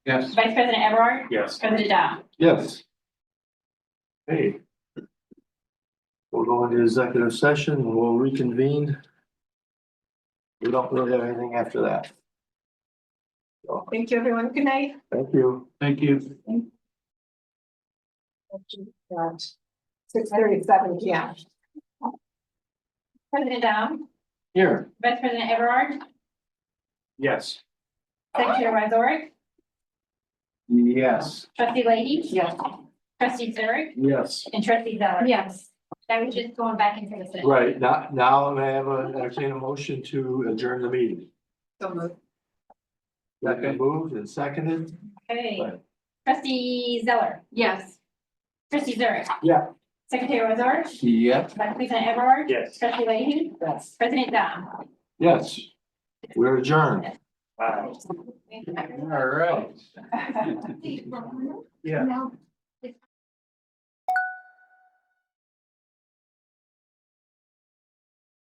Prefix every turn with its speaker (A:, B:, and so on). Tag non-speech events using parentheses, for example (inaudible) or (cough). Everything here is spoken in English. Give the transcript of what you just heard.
A: Yes.
B: Vice President Everard,
C: Yes.
B: President Dow.
A: Yes.
D: Hey. We'll go into executive session and we'll reconvene. We don't really have anything after that.
E: Thank you, everyone. Good night.
D: Thank you.
A: Thank you.
E: Six thirty-seven PM.
B: President Dow,
A: Here.
B: Vice President Everard,
C: Yes.
B: Secretary Wazorek,
A: Yes.
B: Trustee Leahy.
E: Yes.
B: Trustee Zurich
A: Yes.
B: and Trustee Zeller.
E: Yes.
B: That was just going back into the session.
D: Right, now, now I have a, entertain a motion to adjourn the meeting.
E: So moved.
D: That been moved and seconded?
B: Okay.
D: Right.
B: Trustee Zeller,
E: Yes.
B: Trustee Zurich.
D: Yeah.
B: Secretary Wazorek,
A: Yep.
B: Vice President Everard.
C: Yes.
B: Trustee Leahy,
E: Yes.
B: President Dow.
D: Yes. We're adjourned.
C: Wow.
A: All right.
E: (laughs) Now,
A: Yeah.